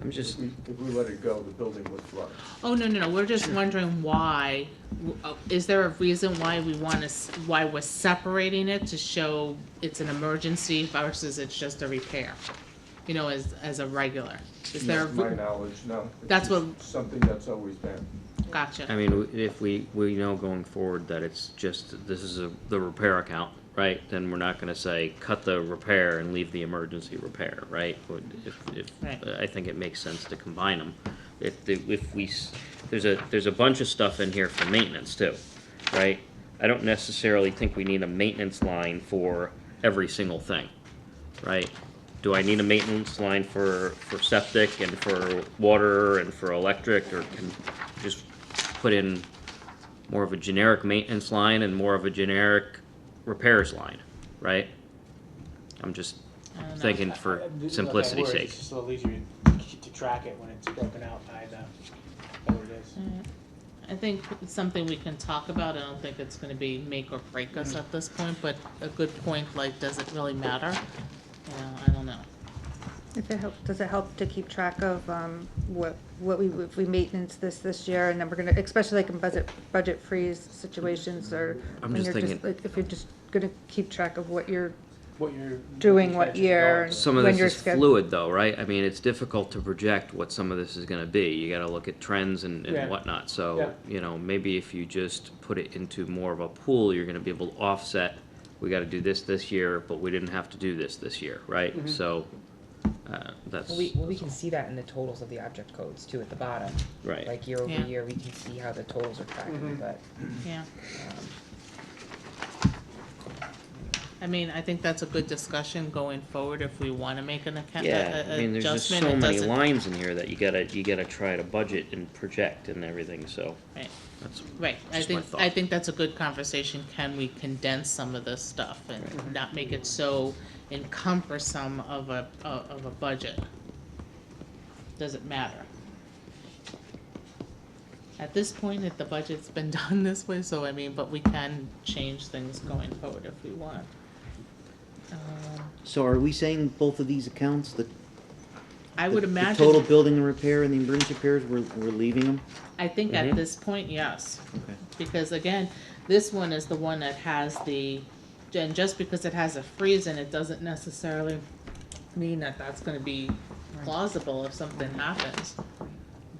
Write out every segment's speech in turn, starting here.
I'm just, If we, if we let it go, the building would flood. Oh, no, no, no, we're just wondering why, w- uh, is there a reason why we want to, why we're separating it to show it's an emergency versus it's just a repair? You know, as, as a regular? Is there, a To My re- knowledge, no. It's That's just what- Something that's always been. gotcha? I mean, w- if we, we know going forward that it's just, this is a, the repair account, right? Then we're not gonna say, cut the repair and leave the emergency repair, right? Would- If, Right. if, I think it makes sense to combine them. If, the- if we, s- there's a, there's a bunch of stuff in here for maintenance too, right? I don't necessarily think we need a maintenance line for every single thing, right? Do I need a maintenance line for, for septic and for water and for electric, or can just put in more of a generic maintenance line and more of a generic repairs line, right? I'm just I don't know. thinking I- I- for I- look, I simplicity's worry, sake. It's just a little easier to to track it when it's broken out by the, by what it is. I think it's something we can talk about, I don't think it's gonna be make or break us at this point, but a good point, like, does it really matter? You know, I don't know. If it help, does it help to keep track of, um, what, what we, if we maintenance this this year, and then we're gonna, especially like in budget, budget freeze situations, or I'm when just you're thinking- like, If you're just gonna keep track of what you're, What you're. Doing you what mentioned year dogs. Some of when this you're is sched- fluid though, right? I mean, it's difficult to project what some of this is gonna be. You gotta look at trends and, Yeah. and whatnot, Yeah. so, you know, maybe if you just put it into more of a pool, you're gonna be able to offset. We gotta do this this year, but we didn't have to do this this year, right? Mhm. So, uh, that's, Well, we, well, we can see that in the totals of the object codes too at the bottom. right. Like year over Yeah. year, we can see how the totals are tracking, Mhm. but, Yeah, um, I mean, I think that's a good discussion going forward if we wanna make an account, a- Yeah, I a- mean, there's just adjustment, so it many doesn't, lines in here that you gotta, you gotta try to budget and project and everything, so right. that's, Right, I Just my think, thought. I think that's a good conversation, can we condense some of this stuff and not make it so encumbersome of a, uh, of of a budget? Does it matter? At this point, if the budget's been done this way, so I mean, but we can change things going forward if we want. Um, So are we saying both of these accounts, the? I would the- the imagine. Total building and repair and the emergency repairs, we're, we're leaving them? I think Mhm. at this point, yes. Mm-hmm. Okay. Because again, this one is the one that has the, and just because it has a freeze in it doesn't necessarily mean that that's gonna be plausible if something happens.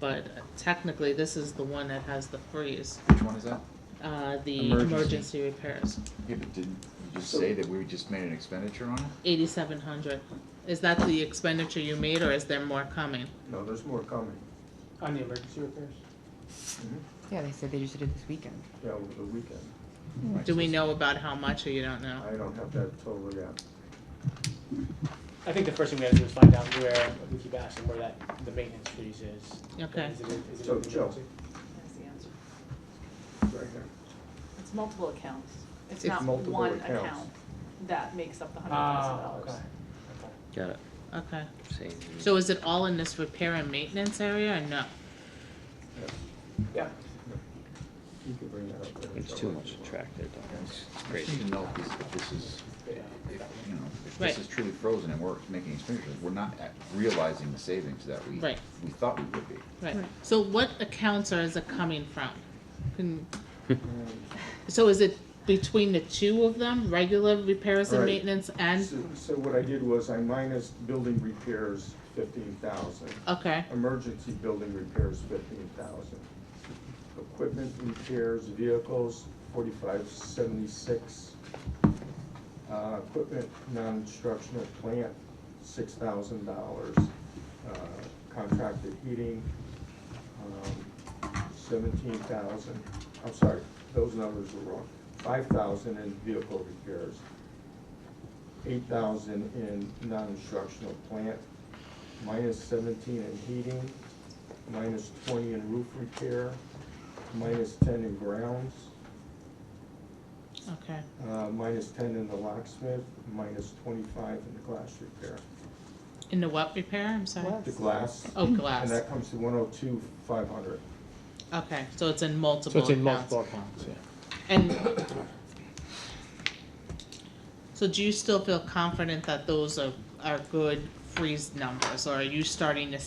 But technically, this is the one that has the freeze, Which one is that? uh, the Emergency. emergency repairs, Yeah, but didn't you just say that we just made an expenditure on it? eighty-seven hundred. Is that the expenditure you made or is there more coming? No, there's more coming. On the emergency repairs. Mm-hmm. Yeah, they said they just did it this weekend. Yeah, over the weekend. Do we know about how much or you don't know? I don't have that total yet. I think the first thing we gotta do is find out where, we keep asking where that, the maintenance freeze is. Okay. Is it, in- is it? So, in the Joe. emergency? That's the answer. Right there. It's multiple accounts. It's It's not multiple one accounts. account that makes up the hundred thousand Ah, okay. dollars. Okay. got it. Okay, Same. so is it all in this repair and maintenance area or no? Yeah. You can bring that up. there. It's too much to track there, Doc. It's I crazy. just need to know if this, if this is, if, you know, if Right. this is truly frozen and we're making expenditures, we're not at- realizing the savings that we, Right. we thought we would be. Right, Right. so what accounts are, is it coming from? Can, so is it between the two of them, regular repairs and Right. maintenance and, So- So what I did was I minus building repairs fifteen thousand, okay, emergency building repairs fifteen thousand. Equipment repairs, vehicles, forty-five seventy-six. Uh, equipment, non-instructional plant, six thousand dollars. Uh, Contracted heating, um, seventeen thousand, I'm sorry, those numbers were wrong. Five thousand in vehicle repairs, eight thousand in non-instructional plant, minus seventeen in heating, minus twenty in roof repair, minus ten in grounds, okay. uh, minus ten in the locksmith, minus twenty-five in the glass repair. In the what repair, I'm sorry? The glass, Oh, and glass, that comes to one oh two, five hundred. okay, so it's in So multiple it's in accounts. multiple accounts, yeah. And, so do you still feel confident that those are, are good freeze numbers, or are you starting to